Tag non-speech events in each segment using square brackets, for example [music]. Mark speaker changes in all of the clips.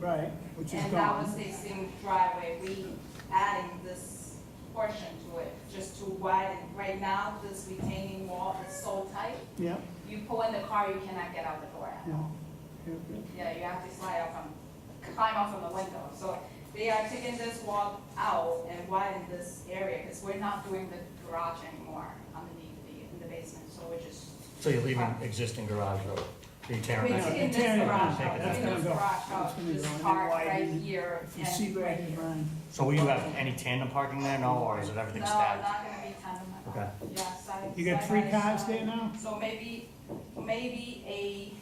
Speaker 1: Right, which is
Speaker 2: And that was
Speaker 1: gone.
Speaker 2: existing driveway, we adding this portion to it, just to widen. Right now, this retaining wall is so tight,
Speaker 1: Yep,
Speaker 2: you pull in the car, you cannot get out the door at
Speaker 1: yeah.
Speaker 2: all.
Speaker 1: Yep,
Speaker 2: Yeah, you have to slide off on, climb off on the window. So they are taking this wall out and widen this area, because we're not doing the garage anymore underneath the, in the basement, so we're just.
Speaker 3: So you're leaving existing garage road, you're tearing
Speaker 2: We're
Speaker 1: Yeah,
Speaker 3: that,
Speaker 2: taking this
Speaker 1: tearing it
Speaker 2: garage
Speaker 3: down.
Speaker 2: out,
Speaker 3: That's
Speaker 2: taking
Speaker 1: gonna
Speaker 2: this
Speaker 1: go.
Speaker 2: garage
Speaker 1: That's
Speaker 2: out,
Speaker 1: gonna
Speaker 2: this
Speaker 1: go. And
Speaker 2: park
Speaker 1: widen
Speaker 2: right
Speaker 1: it.
Speaker 2: here
Speaker 1: If You see
Speaker 2: and
Speaker 1: right
Speaker 2: right
Speaker 1: in
Speaker 2: here.
Speaker 1: line.
Speaker 3: so will you have any tandem parking there now, or is it
Speaker 2: No,
Speaker 3: everything
Speaker 2: not
Speaker 3: stacked?
Speaker 2: gonna be tandem at all.
Speaker 3: Okay.
Speaker 2: Yeah, side.
Speaker 1: You got
Speaker 2: side
Speaker 1: three
Speaker 2: by
Speaker 1: cars
Speaker 2: side.
Speaker 1: there now?
Speaker 2: So maybe, maybe a,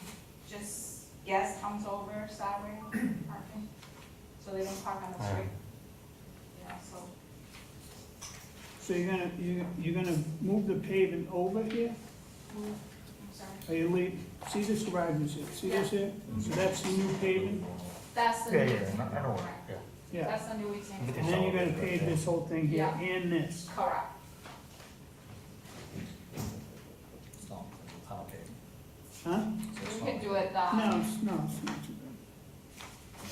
Speaker 2: just guest comes over Saturday parking, so they don't park on the street.
Speaker 3: Alright.
Speaker 2: Yeah, so,
Speaker 1: So you're gonna, you- you're gonna move the pavement over here?
Speaker 2: I'm sorry.
Speaker 1: Are you leaving, see this garage is here, see this here? So that's the new pavement?
Speaker 2: That's the.
Speaker 3: Yeah,
Speaker 2: new-
Speaker 3: yeah, no- I know, where- yeah.
Speaker 1: Yeah.
Speaker 2: That's the new weekend.
Speaker 1: And then you're gonna pave this whole thing here
Speaker 2: Yeah.
Speaker 1: and this.
Speaker 2: Correct.
Speaker 3: It's not complicated.
Speaker 1: Huh?
Speaker 3: So it's
Speaker 2: We
Speaker 3: not-
Speaker 2: could do it, uh,
Speaker 1: No, it's, no, it's not too bad.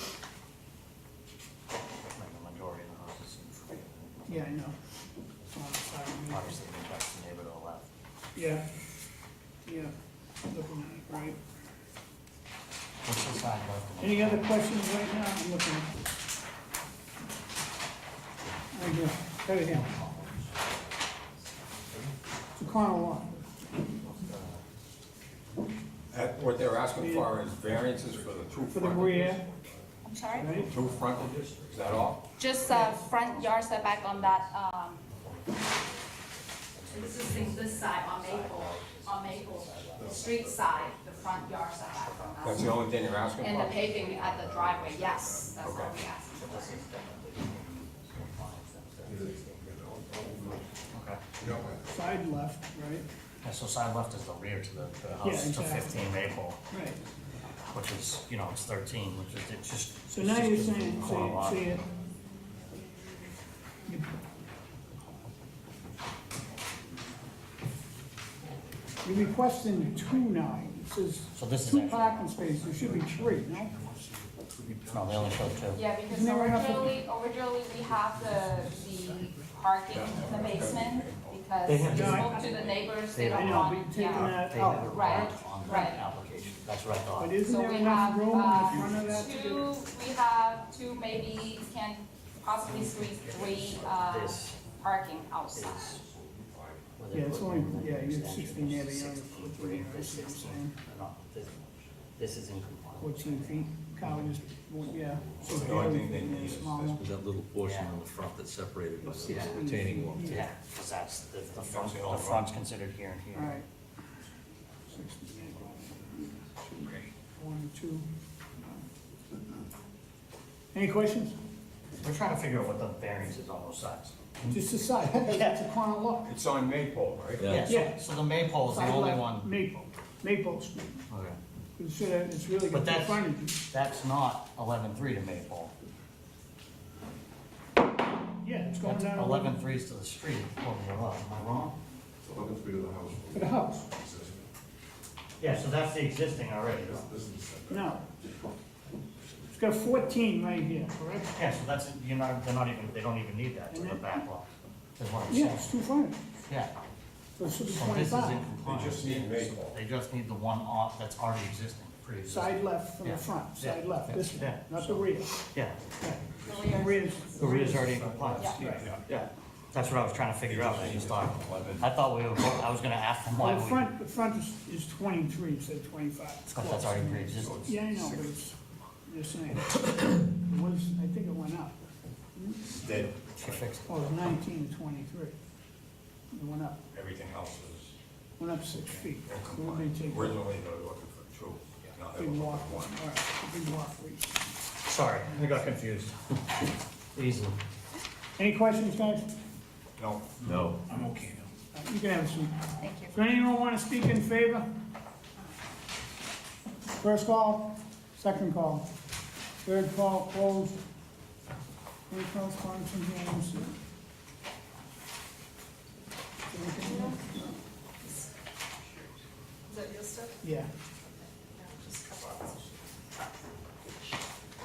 Speaker 3: like the majority of the houses in front of you.
Speaker 1: Yeah, I know. Um, sorry, I mean,
Speaker 3: Obviously, it impacts the neighbor to the left.
Speaker 1: Yeah, yeah, looking at it, right.
Speaker 3: What's the side left?
Speaker 1: Any other questions right now? I'm looking. Right here, right here. It's a corner lot.
Speaker 4: That- What they're asking for is variances for the two
Speaker 1: For the
Speaker 4: frontages.
Speaker 1: rear,
Speaker 2: I'm sorry?
Speaker 1: right?
Speaker 4: Two frontages, is that all?
Speaker 2: Just a front yard setback on that, um, this is in this side on Maple, on Maple, street side, the front yard setback on
Speaker 4: That's
Speaker 2: that.
Speaker 4: the only thing they're asking
Speaker 2: And the
Speaker 4: for?
Speaker 2: paving at the driveway, yes, that's what we asked for.
Speaker 3: Okay.
Speaker 1: Side left, right?
Speaker 3: Yeah, so side left is the rear to the, to the
Speaker 1: Yeah,
Speaker 3: house, to
Speaker 1: exactly.
Speaker 3: fifteen Maple,
Speaker 1: Right.
Speaker 3: which is, you know, it's thirteen, which is, it's just.
Speaker 1: So
Speaker 3: it's
Speaker 1: now
Speaker 3: just
Speaker 1: you're
Speaker 3: a
Speaker 1: saying,
Speaker 3: corner
Speaker 1: so
Speaker 3: lot.
Speaker 1: you, so you. you- You're requesting two now. It says
Speaker 3: So this is
Speaker 1: two
Speaker 3: actually-
Speaker 1: parking spaces. There should be three, no?
Speaker 3: No, they only show two.
Speaker 2: Yeah, because
Speaker 1: Isn't it right off the-
Speaker 2: originally, originally we have the, the parking in the basement, because
Speaker 3: They have-
Speaker 2: we spoke to the neighbors, they
Speaker 3: They
Speaker 1: I
Speaker 2: don't
Speaker 1: know, but you're
Speaker 2: want,
Speaker 1: taking
Speaker 2: yeah.
Speaker 1: that
Speaker 3: They never
Speaker 1: out.
Speaker 2: Right,
Speaker 3: worked on the
Speaker 2: right.
Speaker 3: application, that's what I thought.
Speaker 1: Oh, But isn't
Speaker 2: So
Speaker 1: there
Speaker 2: we
Speaker 1: enough
Speaker 2: have,
Speaker 1: room in front of
Speaker 2: uh,
Speaker 1: that? to do
Speaker 2: two, we have two, maybe can possibly three, three, uh,
Speaker 3: This
Speaker 2: parking outside.
Speaker 3: where they
Speaker 1: Yeah, it's
Speaker 3: put
Speaker 1: only,
Speaker 3: in the
Speaker 1: yeah, you're
Speaker 3: extension,
Speaker 1: sixteen, yeah, but you're only
Speaker 3: 16
Speaker 1: fourteen,
Speaker 3: feet,
Speaker 1: right, so you're saying
Speaker 3: not this much. This is in compliance.
Speaker 1: fourteen feet, Kyle just, well, yeah. So
Speaker 4: The only thing
Speaker 1: the
Speaker 4: they need is
Speaker 1: smaller.
Speaker 4: this.
Speaker 5: That little portion on the front that separated was the retaining wall.
Speaker 3: Yeah, because that's, the, the front, the front's considered here and
Speaker 1: All
Speaker 3: here.
Speaker 1: right. Sixteen, One, two. Any questions?
Speaker 3: We're trying to figure out what the variance is on those sides.
Speaker 1: Just [laughs] decide, it's a corner lot.
Speaker 4: It's on Maple, right?
Speaker 5: Yeah.
Speaker 3: Yeah, so, so the maypole is Oh, the only
Speaker 1: Sidewalk,
Speaker 3: one.
Speaker 1: Maple, Maple Street,
Speaker 3: Okay.
Speaker 1: it's, uh, it's really
Speaker 3: But
Speaker 1: good
Speaker 3: that's-
Speaker 1: frontage.
Speaker 3: That's not eleven-three to maypole.
Speaker 1: Yeah, it's going
Speaker 3: That's
Speaker 1: down.
Speaker 3: eleven-three is to the street, according to the law. am I wrong?
Speaker 6: Eleven feet of the house.
Speaker 1: To the house,
Speaker 3: Yeah, so that's the existing already, though.
Speaker 6: This is the setback.
Speaker 1: no. It's got fourteen right here, correct?
Speaker 3: Yeah, so that's, you're not, they're not even, they don't even need that to the back lot. That's what I'm
Speaker 1: Yeah,
Speaker 3: saying.
Speaker 1: it's two frontage,
Speaker 3: Yeah,
Speaker 1: so it should be
Speaker 3: so Oh, this is in
Speaker 1: twenty-five.
Speaker 3: compliance.
Speaker 4: They just need Maple.
Speaker 3: They just need the one off that's already existing, pre-existing.
Speaker 1: Side left from
Speaker 3: Yeah,
Speaker 1: the front,
Speaker 3: yeah,
Speaker 1: side left,
Speaker 3: yeah,
Speaker 1: this one,
Speaker 3: yeah.
Speaker 1: not the rear.
Speaker 3: Yeah,
Speaker 1: Yeah.
Speaker 2: The rear.
Speaker 1: Rear's.
Speaker 3: the rear's already in compliance.
Speaker 2: Yeah.
Speaker 3: Yeah, that's what I was trying to figure out, I just thought, I thought we were, I was gonna ask them why
Speaker 1: Well, The
Speaker 3: we,
Speaker 1: front, the front is- is twenty-three, instead of twenty-five. It's
Speaker 3: but
Speaker 1: close.
Speaker 3: Oh, that's already pre-existing.
Speaker 1: Yeah, I know, but it's, you're saying, it was, I think it went up.
Speaker 4: Then
Speaker 3: She fixed it.
Speaker 1: Oh, it was nineteen to twenty-three. It went up,
Speaker 4: everything else is
Speaker 1: went up six feet.
Speaker 4: in
Speaker 1: So we may
Speaker 4: compliance.
Speaker 1: take a
Speaker 4: Originally, they were looking for two, now they're
Speaker 1: big
Speaker 4: looking
Speaker 1: walk,
Speaker 4: for
Speaker 1: all
Speaker 4: one.
Speaker 1: right, a big walk.
Speaker 3: Sorry, I got confused. Easy.
Speaker 1: Any questions, guys?
Speaker 4: No,
Speaker 5: No.
Speaker 1: Uh, You can have a seat.
Speaker 2: Thank you.
Speaker 1: Does anyone want to speak in favor? First call, second call, third call closed. Any correspondence from the MC?
Speaker 2: Is that your stuff?
Speaker 1: Yeah,